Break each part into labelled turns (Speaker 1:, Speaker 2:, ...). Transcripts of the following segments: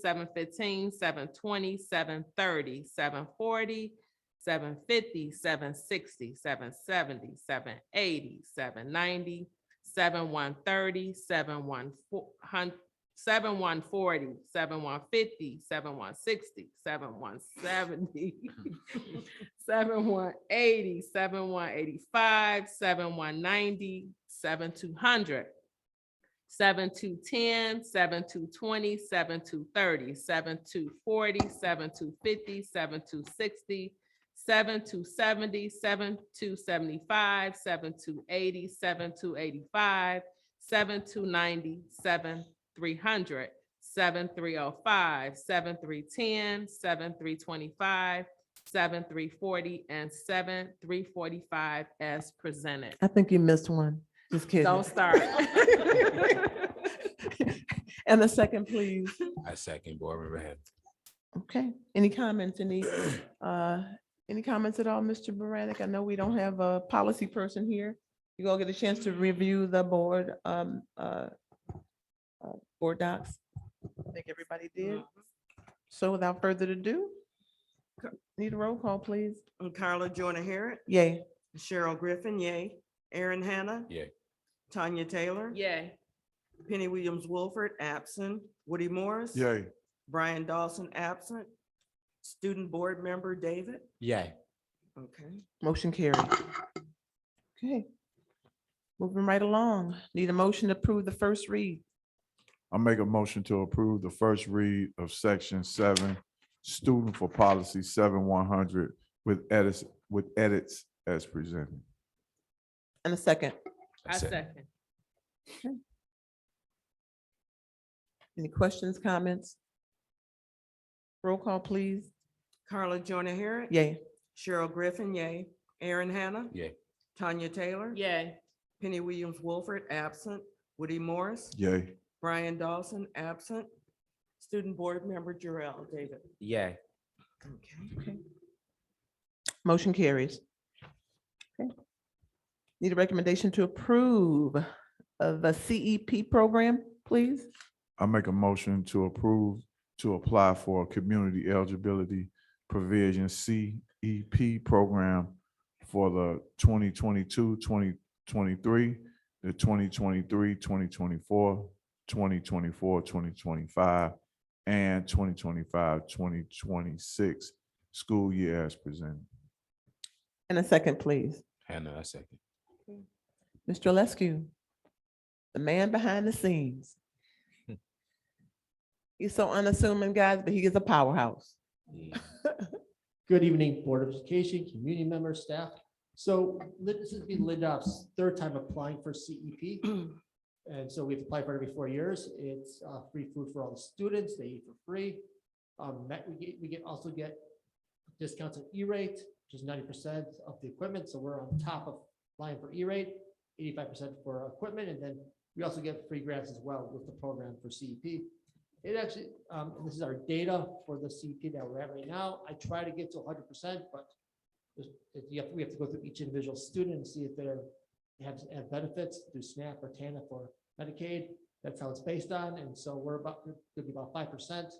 Speaker 1: seven fifteen, seven twenty, seven thirty, seven forty, seven fifty, seven sixty, seven seventy, seven eighty, seven ninety, seven one thirty, seven one four hun- seven one forty, seven one fifty, seven one sixty, seven one seventy, seven one eighty, seven one eighty-five, seven one ninety, seven two hundred, seven to ten, seven to twenty, seven to thirty, seven to forty, seven to fifty, seven to sixty, seven to seventy, seven to seventy-five, seven to eighty, seven to eighty-five, seven to ninety, seven three hundred, seven three oh five, seven three ten, seven three twenty-five, seven three forty, and seven three forty-five as presented.
Speaker 2: I think you missed one. Just kidding.
Speaker 1: Don't start.
Speaker 2: And a second, please.
Speaker 3: I second Boardman Rand.
Speaker 2: Okay, any comments, any, uh, any comments at all, Mr. Baranik? I know we don't have a policy person here. You gonna get a chance to review the board, um, uh, uh, board docs? I think everybody did. So without further ado, need a roll call, please.
Speaker 4: Carla Jonah Harret,
Speaker 2: Yay.
Speaker 4: Cheryl Griffin, yay. Erin Hanna.
Speaker 3: Yay.
Speaker 4: Tanya Taylor.
Speaker 1: Yay.
Speaker 4: Penny Williams Wolford, absent. Woody Morris.
Speaker 5: Yay,
Speaker 4: Brian Dawson, absent. Student Board Member David.
Speaker 3: Yay.
Speaker 4: Okay.
Speaker 2: Motion carried. Okay. Moving right along, need a motion to approve the first read.
Speaker 5: I make a motion to approve the first read of section seven, student for policy seven one hundred with edits, with edits as presented.
Speaker 2: And a second,
Speaker 1: I second.
Speaker 2: any questions, comments? Roll call, please.
Speaker 4: Carla Jonah Harret.
Speaker 2: Yay.
Speaker 4: Cheryl Griffin, yay. Erin Hanna.
Speaker 3: Yay.
Speaker 4: Tanya Taylor.
Speaker 1: Yay.
Speaker 4: Penny Williams Wolford, absent. Woody Morris.
Speaker 5: Yay,
Speaker 4: Brian Dawson, absent. Student Board Member Jarrell David.
Speaker 3: Yay.
Speaker 4: Okay.
Speaker 2: Motion carries. Okay. Need a recommendation to approve of the CEP program, please?
Speaker 5: I make a motion to approve to apply for a community eligibility provision CEP program for the 2022-2023, the 2023-2024, 2024-2025, and 2025-2026 school year as presented.
Speaker 2: And a second, please.
Speaker 3: Hannah, I second.
Speaker 2: Mr. Lesku, the man behind the scenes. He's so unassuming, guys, but he is a powerhouse.
Speaker 3: Mm.
Speaker 6: Good evening, Board of Education, community members, staff. So Lid- this has been Lindop's third time applying for CEP. And so we've applied for it every four years. It's uh, free food for all the students. They eat for free. Um, that we get, we get also get discounts on E-rate, which is ninety percent of the equipment. So we're on top of line for E-rate, eighty-five percent for equipment. And then we also get free grants as well with the program for E CEP. It actually, um, and this is our data for the CP that we're at right now. I try to get to hundred percent, but there's- if you have, we have to go through each individual student and see if they're, have, have benefits through SNAP or TANF or Medicaid. That's how it's based on. And so we're about, it'll be about five percent.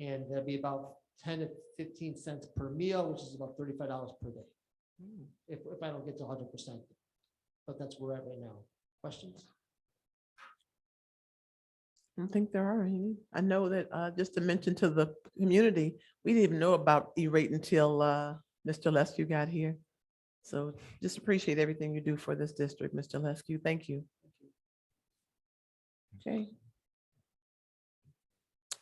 Speaker 6: And that'd be about ten to fifteen cents per meal, which is about thirty-five dollars per day. If, if I don't get to hundred percent. But that's where we're at right now. Questions?
Speaker 2: I don't think there are any. I know that, uh, just to mention to the community, we didn't even know about E-rate until, uh, Mr. Lesku got here. So just appreciate everything you do for this district, Mr. Lesku. Thank you. Okay.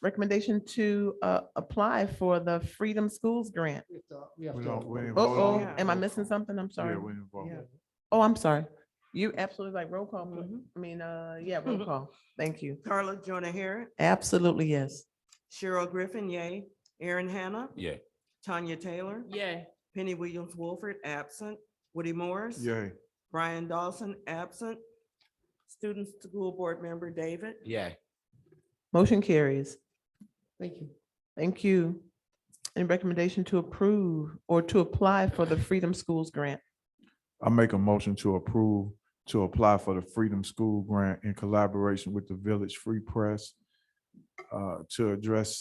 Speaker 2: Recommendation to, uh, apply for the Freedom Schools Grant.
Speaker 6: We have to, we have
Speaker 5: We
Speaker 6: to.
Speaker 5: don't- we ain't voted
Speaker 2: Oh,
Speaker 5: on
Speaker 4: yeah.
Speaker 5: it.
Speaker 2: am I missing something? I'm sorry.
Speaker 5: Yeah, we involved.
Speaker 4: Yeah.
Speaker 2: Oh, I'm sorry. You absolutely like roll call. pl-
Speaker 4: Mhm.
Speaker 2: I mean, uh, yeah, roll call. Thank you.
Speaker 4: Carla Jonah Harret.
Speaker 2: Absolutely, yes.
Speaker 4: Cheryl Griffin, yay. Erin Hanna.
Speaker 3: Yay.
Speaker 4: Tanya Taylor.
Speaker 1: Yay.
Speaker 4: Penny Williams Wolford, absent. Woody Morris.
Speaker 5: Yay,
Speaker 4: Brian Dawson, absent. Student School Board Member David.
Speaker 3: Yay.
Speaker 2: Motion carries.
Speaker 6: Thank you.
Speaker 2: Thank you. Any recommendation to approve or to apply for the Freedom Schools Grant?
Speaker 5: I make a motion to approve to apply for the Freedom School Grant in collaboration with the Village Free Press uh, to address